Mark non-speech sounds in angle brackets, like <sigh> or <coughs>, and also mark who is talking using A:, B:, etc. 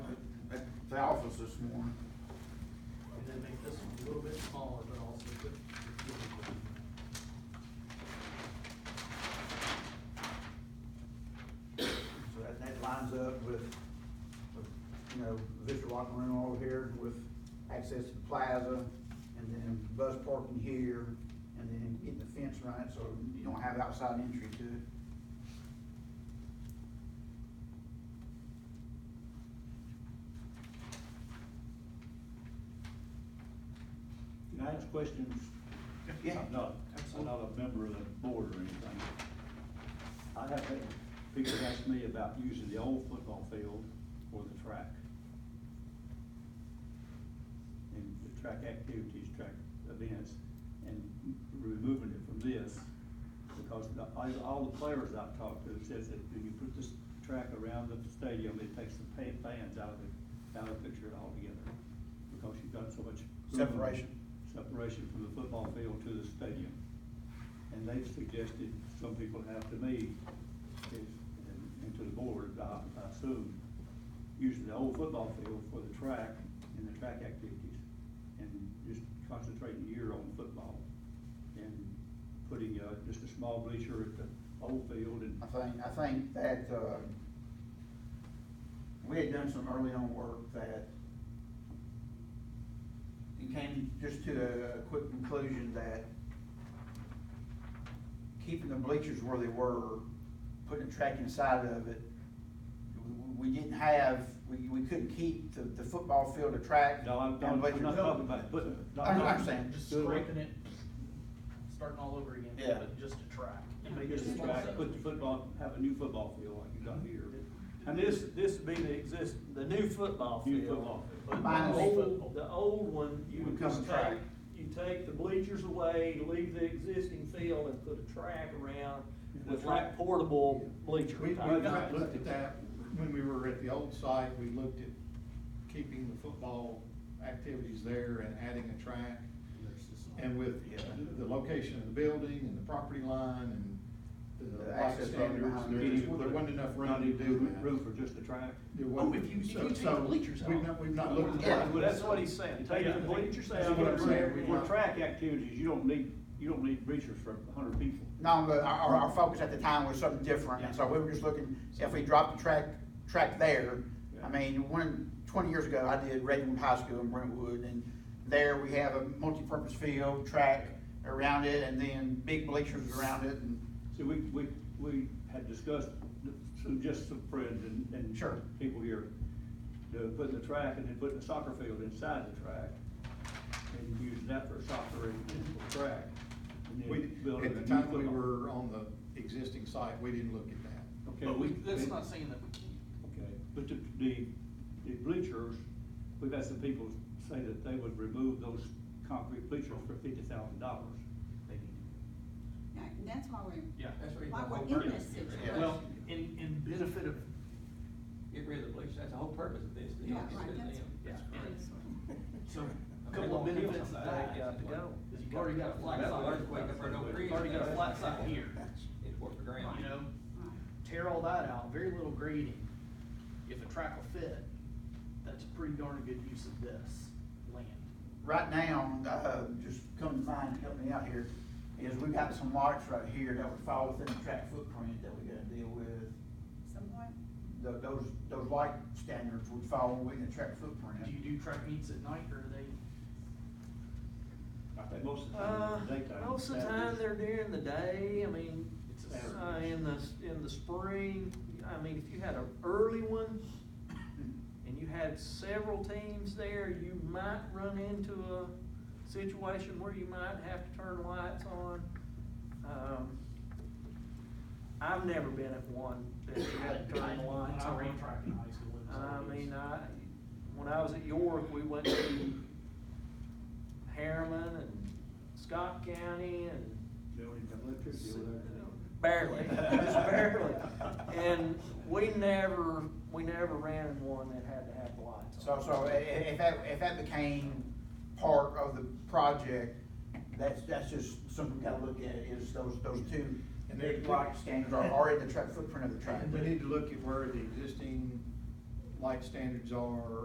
A: the office this morning.
B: And then make this one a little bit smaller, but also good.
A: So that, that lines up with, with, you know, Victor Locker Room over here with access to the plaza and then bus parking here and then getting the fence right so you don't have outside entry to it.
C: Can I ask questions?
A: Yeah.
C: I'm not, I'm not a member of the board or anything. I have had people ask me about using the old football field or the track. And the track activities, track events, and removing it from this. Because the- I, all the players I've talked to says that when you put this track around the stadium, it takes the pa- fans out of the, out of the picture altogether. Because you've got so much.
D: Separation.
C: Separation from the football field to the stadium. And they've suggested, some people have to me, if, and, and to the board, I, I assume, using the old football field for the track and the track activities. And just concentrating year on football and putting, uh, just a small bleacher at the old field and,
A: I think, I think that, uh, we had done some early on work that it came just to a quick conclusion that keeping the bleachers where they were, putting a track inside of it, we, we didn't have, we, we couldn't keep the, the football field a track.
C: no, I'm,
A: and
C: I'm
A: bleachers.
C: not talking about putting. not
A: I know what I'm
C: talking-
A: saying.
B: Just
C: Good.
B: scraping it, starting all over again,
A: Yeah.
B: but just a track.
C: Make this a track, put the football, have a new football field like you got here.
D: Mm-hmm.
E: And this, this would be the exist, the new football
C: New
E: field.
C: football field.
E: But
A: Minus-
E: the old, the old one, you
A: Would
E: would
A: come
E: just
A: a track.
E: take, you take the bleachers away, leave the existing field and put a track around
C: The
E: with
C: track.
E: like portable bleacher
D: We, we
E: type.
D: got- looked at that, when we were at the old site, we looked at keeping the football activities there and adding a track. And with
A: Yeah.
D: the location of the building and the property line and the
A: The
D: light
A: access road
D: standards,
A: behind
D: there
A: it.
D: just- there wasn't enough room to do that.
C: Room for just a track.
D: There wasn't.
B: Oh, if you- if you
D: So-
B: take the
D: so
B: bleachers
D: We've
B: out.
D: not, we've not looked
A: Yeah.
D: at
E: Well,
D: that.
E: that's what he's saying, take
C: Yeah.
E: the bleachers
D: That's
E: out.
D: what I'm saying, we
C: For
D: want-
C: track activities, you don't need, you don't need bleachers for hundred people.
A: No, but our, our, our focus at the time was something different, and so we were just looking, if we dropped the track, track there, I mean, one, twenty years ago, I did Redwood High School in Brentwood, and there we have a multi-purpose field, track around it, and then big bleachers around it, and
C: So we, we, we had discussed, so just some friends and, and.
A: Sure.
C: People here, the, putting the track and then putting the soccer field inside the track and using that for soccer and and for track. and then
D: We,
C: building
D: at
C: a
D: the
C: new
D: time we
C: football.
D: were on the existing site, we didn't look at that.
C: Okay,
B: But we, that's
C: we-
B: not saying that we can't.
C: Okay, but the, the, the bleachers, we've had some people say that they would remove those concrete bleachers for fifty thousand dollars.
B: They need to.
F: Right, and that's why we're,
B: Yeah.
G: That's what you
F: why
G: want.
F: we're in this situation.
A: Yeah.
B: Well, in, in benefit of,
G: Get rid of the bleachers, that's the whole purpose of this, to
F: Yeah,
G: help us
F: right,
G: with
F: that's-
G: them.
B: yeah,
F: that's right.
B: so, a
G: I'm
B: couple of
G: gonna kill
B: benefits of
G: somebody.
B: that.
G: Got to go.
B: Is you've already got a flat
G: That's
B: side.
G: the earthquake up there, no
B: You've Already got a flat side here,
G: It's worth the ground.
B: you know?
F: Right.
B: tear all that out, very little grading, if a track will fit, that's a pretty darn good use of this land.
A: right now, uh, just come to mind, help me out here, is we've got some lots right here that would fall within the track footprint that we gotta deal with.
F: Somewhat,
A: Tho- Those, those light standards would fall within the track footprint.
B: Do you do track meets at night, or are they,
C: I think most of the
E: Uh,
C: time, daytime.
E: most of the time,
C: Saturdays.
E: they're during the day, I mean,
B: It's
C: a
E: uh,
C: Saturday.
E: in the, in the spring, I mean, if you had an early one, and you had several teams there, you might run into a situation where you might have to turn lights on. Um, I've never been at one that you had to turn the
B: <coughs>
E: lights
B: I
E: on.
B: ran track in high school, it was
E: I
B: obvious.
E: mean, I, when I was at York, we went to Harriman and Scott County and
C: They don't even have electricity over there.
E: barely, just barely. And we never, we never ran in one that had to have lights on.
A: So, so i- i- if that, if that became part of the project, that's, that's just something we gotta look at, is those, those two
D: And they're-
A: big block standards are, are in the track, footprint of the track.
D: We need to look at where the existing light standards are